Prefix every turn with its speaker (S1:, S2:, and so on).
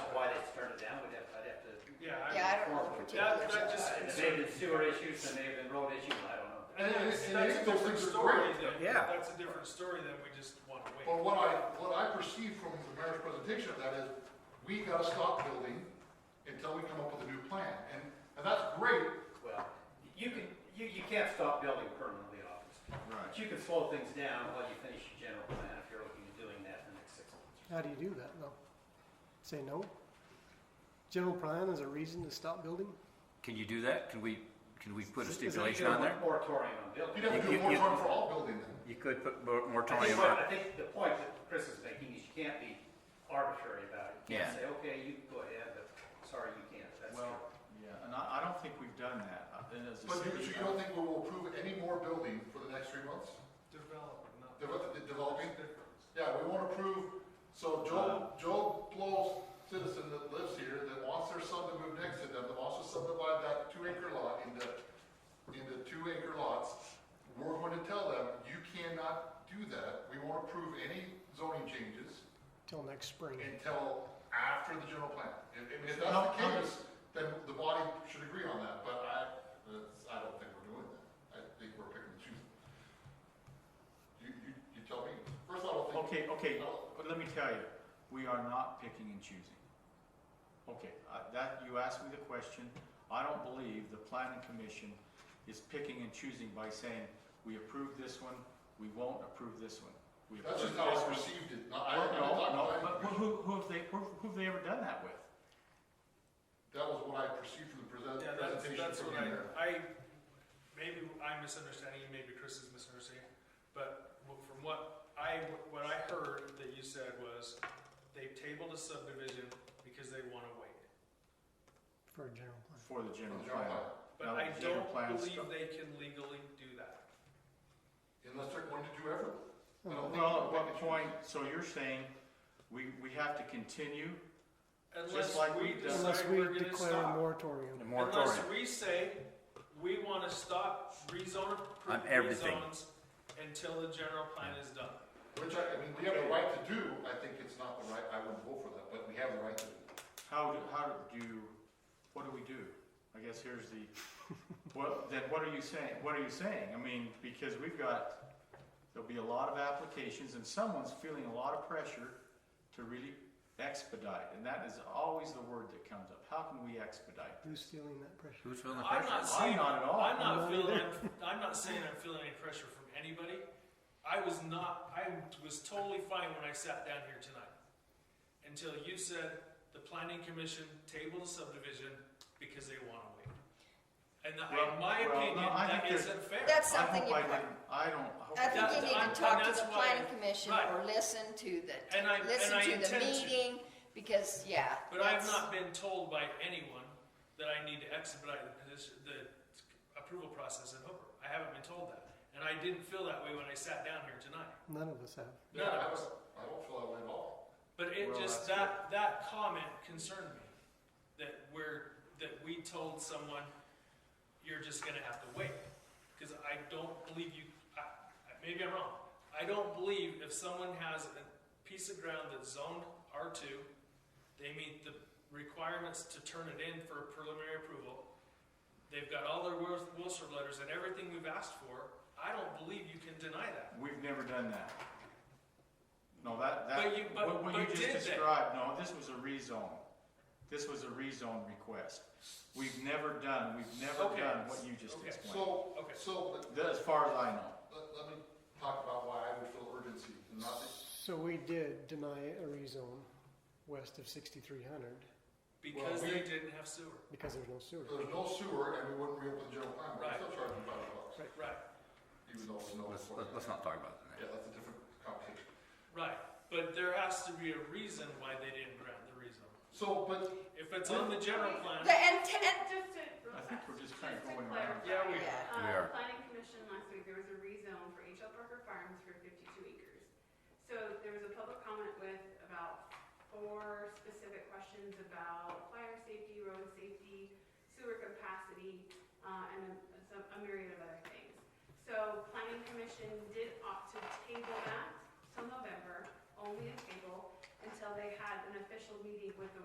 S1: uh, sewer issues than they have been road issues, I don't know.
S2: And
S3: And
S2: it's,
S3: it-
S2: that's
S3: it
S2: a different
S3: is different
S2: story
S3: rate.
S2: than,
S4: Yeah.
S2: that's a different story than we just wanna wait.
S3: But what I, what I perceive from the mayor's presentation of that is, we gotta stop building until we come up with a new plan. And, and that's great.
S1: Well, you can, you, you can't stop building permanently off this. But
S3: Right.
S1: you can slow things down while you finish your general plan if you're looking at doing that in the next six months.
S5: How do you do that though? Say no? General plan is a reason to stop building?
S6: Can you do that? Can we, can we put a
S5: Is it-
S6: stipulation on there?
S1: Moratorium on
S3: You'd
S1: building.
S3: have to do
S6: You-
S3: a
S6: you-
S3: moratorium for all building then.
S6: You could put mor-
S1: I think,
S6: moratorium
S1: what-
S6: on
S1: I think the point that Chris is making is you can't be arbitrary about it. You can't
S6: Yeah.
S1: say, okay, you can go ahead, but sorry, you can't. That's,
S7: Well, yeah, and I, I don't think we've done that, uh, and as a
S3: But you, so
S7: city, uh,
S3: you don't think we will approve any more building for the next three months?
S2: Develop, not.
S3: Develop- de- developing?
S2: There's difference.
S3: Yeah, we won't approve, so Joe, Joe Blow citizen that lives here, that wants their son to move next to them, that wants to subdivide that two acre lot into, into two acre lots, we're going to tell them, you cannot do that, we won't approve any zoning changes
S5: Till next spring.
S3: until after the general plan. If, if- if that's the case, then the body should agree on that, but I, that's- I don't think we're doing that, I think we're picking and choosing. You, you, you tell me, first of all, I don't think.
S7: okay, okay,
S3: Well-
S7: but let me tell you, we are not picking and choosing. Okay, I- that, you asked me the question, I don't believe the planning commission is picking and choosing by saying, we approve this one, we won't approve this one. We
S3: That's just
S7: approve
S3: how I
S7: this one."
S3: perceived it. No, I,
S7: Well,
S3: I
S7: No,
S3: talked
S7: no,
S3: about
S7: but
S3: it.
S7: who, who have they, who who have they ever done that with?
S3: That was what I perceived from the present,
S2: Yeah, that's,
S3: presentation
S2: that's
S3: from
S2: what I,
S3: the mayor.
S2: I, maybe I'm misunderstanding, you, maybe Chris is misunderstanding, but wh- from what I, what I heard that you said was, they tabled a subdivision because they wanna wait.
S5: For a general plan.
S7: For the general
S3: From the general
S7: plan.
S3: plan.
S2: But
S7: Now,
S2: I
S7: the general
S2: don't
S7: plan
S2: believe
S7: stuff-
S2: they can legally do that.
S3: Unless they're going to do everything. I don't think
S7: Well, at
S3: we can
S7: what
S3: choose.
S7: point, so you're saying we, we have to continue?
S2: Unless
S7: like
S2: we
S7: we've done.
S2: decide
S5: Unless we
S2: we're gonna
S5: declare a
S2: stop.
S5: moratorium.
S6: a
S2: Unless
S6: moratorium?
S2: we say, we wanna stop rezone,
S6: On
S2: appro-
S6: everything.
S2: rezones until the general plan is done.
S3: Which I, I mean, we have the right to do, I think it's not the right, I wouldn't vote for that, but we have the right to do.
S7: How, do how do you, what do we do? I guess here's the, well, then what are you saying, what are you saying? I mean, because we've got, there'll be a lot of applications and someone's feeling a lot of pressure to really expedite. And that is always the word that comes up. How can we expedite?
S5: Who's feeling that pressure?
S6: Who's feeling the
S2: I'm
S6: pressure?
S2: not saying,
S7: not at all.
S2: I'm not
S5: I'm not
S2: feeling,
S5: either.
S2: I'm not saying I'm feeling any pressure from anybody. I was not, I was totally fine when I sat down here tonight. Until you said the planning commission tabled a subdivision because they wanna wait. And that-
S7: Well,
S2: in my
S7: well, no,
S2: opinion,
S7: I
S2: that
S7: think there's-
S2: isn't fair.
S8: That's
S7: I
S8: something
S7: hope
S8: you
S7: I
S8: put-
S7: didn't- I don't, I hope.
S8: I think
S2: That-
S8: you need
S2: I'm-
S8: to talk to
S2: that's
S8: the
S2: why-
S8: planning commission
S2: right.
S8: or listen to
S2: And I-
S8: the, listen
S2: and I
S8: to the
S2: intend to.
S8: meeting, because, yeah.
S2: But I have
S8: that's-
S2: not been told by anyone that I need to expedite the position, the approval process in Hooper. I haven't been told that. And I didn't feel that way when I sat down here tonight.
S5: None of us have.
S2: None
S3: I
S2: of us.
S3: don't, I don't feel that way at all.
S2: But it
S7: Well,
S2: just,
S7: that's
S2: that, that comment concerned me. That we're, that we told someone, you're just gonna have to wait. Cause I don't believe you, I, I- maybe I'm wrong. I don't believe if someone has a piece of ground that's zoned R two, they meet the requirements to turn it in for preliminary approval. They've got all their Wil- Wilson letters and everything we've asked for. I don't believe you can deny that.
S7: We've never done that. No, that, that,
S2: But you- but-
S7: what, what
S2: but
S7: you just
S2: did they?
S7: described, no, this was a rezone. This was a rezone request. We've never done, we've never
S2: Okay.
S7: done what you just
S2: Okay.
S7: explained.
S3: So,
S2: Okay.
S3: so, let,
S7: That- As far as I know.
S3: let- let me talk about why I would feel urgency and not, that-
S5: So we did deny a rezone west of sixty-three hundred
S2: Because
S3: Well,
S2: they
S3: we-
S2: didn't have sewer.
S5: because there's no sewer.
S3: there's no sewer and we wouldn't reopen the general plan, we're still charging five bucks,
S2: Right,
S3: even though we know.
S6: Let's,
S3: it's what
S6: let's-
S3: it is.
S6: let's not talk about
S3: Yeah,
S6: that.
S3: that's a different conversation.
S2: right. But there has to be a reason why they didn't grant the reason.
S3: So, but
S2: If it's on the general plan,
S8: The intent,
S9: Just to.
S7: I think we're just kinda
S9: just to
S7: going around.
S9: clarify,
S2: Yeah, we
S8: are.
S9: uh,
S6: We are.
S9: Planning commission last week, there was a rezone for H L Parker Farms for fifty-two acres. So there was a public comment with about four specific questions about fire safety, road safety, sewer capacity, uh, and a- some, a myriad of other things. So planning commission did opt to table that till November, only a table, until they had an official meeting with the